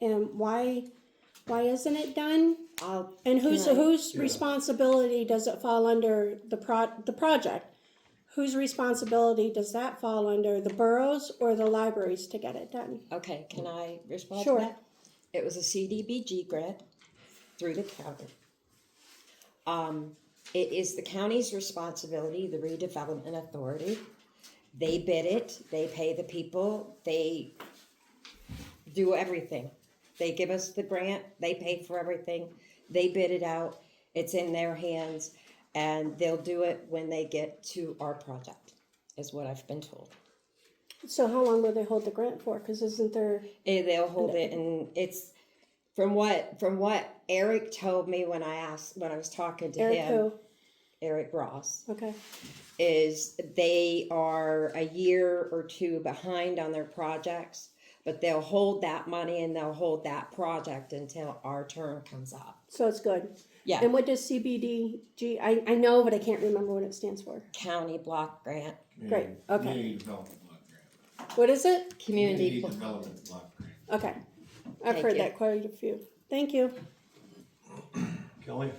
and why, why isn't it done? I'll, And whose, Can I- whose responsibility does it fall under the pro, the project? Whose responsibility does that fall under, the boroughs or the libraries to get it done? okay, can I respond Sure. to that? It was a CDBG grant through the county. Um, it is the county's responsibility, the redevelopment authority. They bid it, they pay the people, they do everything. They give us the grant, they pay for everything, they bid it out, it's in their hands, and they'll do it when they get to our project, is what I've been told. So how long will they hold the grant for? Cause isn't there, Eh, they'll hold it and it's from what from what Eric told me when I asked when I was talking to Eric him who? Eric Ross Okay, is they are a year or two behind on their projects but they'll hold that money and they'll hold that project until our turn comes up so it's good. yeah And what does CBDG, I, I know, but I can't remember what it stands for. county block grant Great, okay. Community development block grant. What is it? community Community blo- development block grant. Okay, I've Thank heard you. that quite a few. Thank you. Kelly?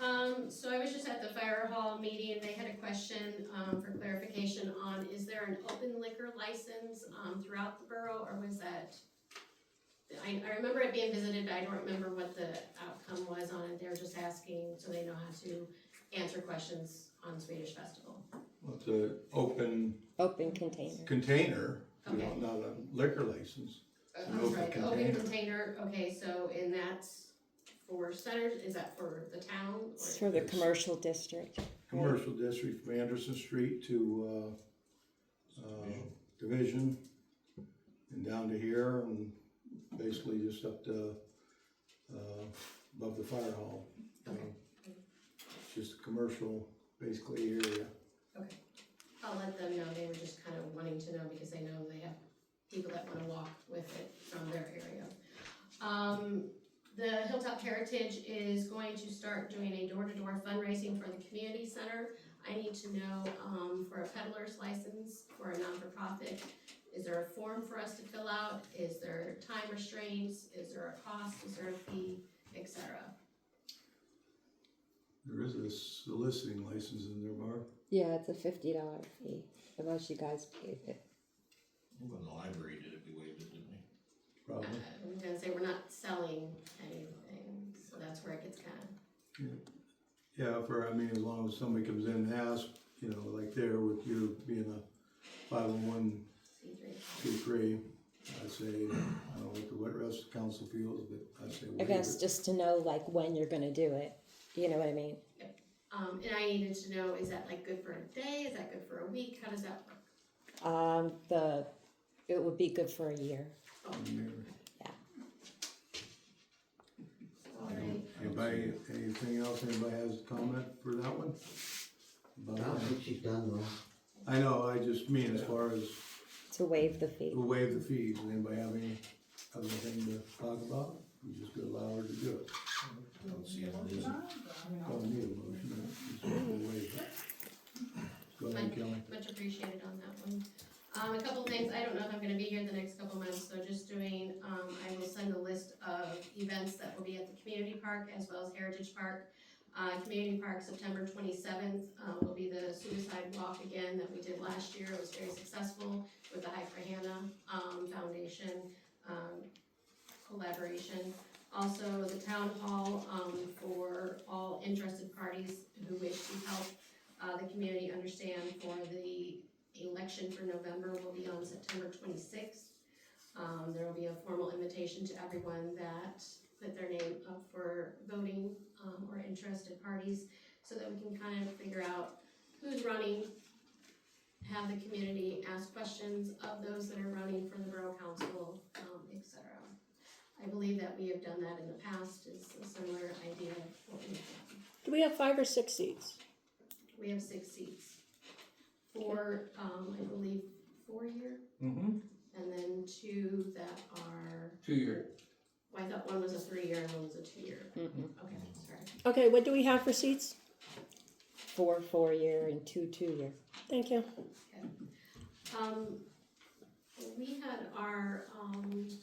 Um, so I was just at the fire hall meeting, and they had a question, um, for clarification on, is there an open liquor license, um, throughout the borough, or was that? I, I remember it being visited, but I don't remember what the outcome was on it, they were just asking, so they know how to answer questions on Swedish Festival. Well, It's an open open container container, you know, Okay. not a liquor license. Uh, An I'm open sorry, open container. container, okay, so, and that's for centers, is that for the town? or- it's for the commercial district Commercial district from Anderson Street to, uh, uh, Division and down to here and basically just up to, uh, above the fire hall. you know. It's Just a commercial, basically area. Okay, I'll let them know, they were just kind of wanting to know because they know they have people that wanna walk with it from their area. Um, the Hilltop Heritage is going to start doing a door-to-door fundraising for the community center. I need to know, um, for a peddler's license for a non-for-profit, is there a form for us to fill out? Is there time restraints? Is there a cost? Is there a fee, et cetera? There is a soliciting license in there, Mark. yeah it's a $50 fee unless you guys paid it When the library did it, we waived it, didn't we? Uh, Probably. I'm gonna say we're not selling anything, so that's where it gets kinda Yeah, for, I mean, as long as somebody comes in and asks, you know, like there with you being a five oh one see through. two, three, I say, I don't know what the what rest of the council feels, but I say I waive guess it. just to know like when you're gonna do it. You know what I mean? Um, and I needed to know, is that like good for a day? Is that good for a week? How does that work? Um, the it would be good for a year. Alright. Anybody, anything else, anybody has a comment for that one? About I don't that? think she's done wrong. I know, I just mean as far as To waive the fee. who waive the fees, Does anybody have any other thing to talk about? You just gonna allow her to do it, I don't see any reason. don't need a motion, just waive it. Go ahead, Kelly. Much appreciated on that one. Um, a couple things, I don't know if I'm gonna be here the next couple months, so just doing, um, I will send a list of events that will be at the community park as well as Heritage Park. Uh, community park, September twenty-seventh, uh, will be the suicide walk again that we did last year, it was very successful with the High for Hannah, um, foundation, um, collaboration. Also, the town hall, um, for all interested parties who wish to help uh, the community understand for the election for November will be on September twenty-sixth. Um, there will be a formal invitation to everyone that put their name up for voting, um, or interested parties, so that we can kind of figure out who's running, have the community ask questions of those that are running for the borough council, um, et cetera. I believe that we have done that in the past, it's a similar idea of what we've done. Do we have five or six seats? We have six seats. Four, um, I believe, four year, Mm-hmm. and then two that are, Two-year. well, I thought one was a three year and one was a two year. Mm-mm. Okay, sorry. Okay, what do we have for seats? Four four year and two two year. Thank you. Um, we had our, um,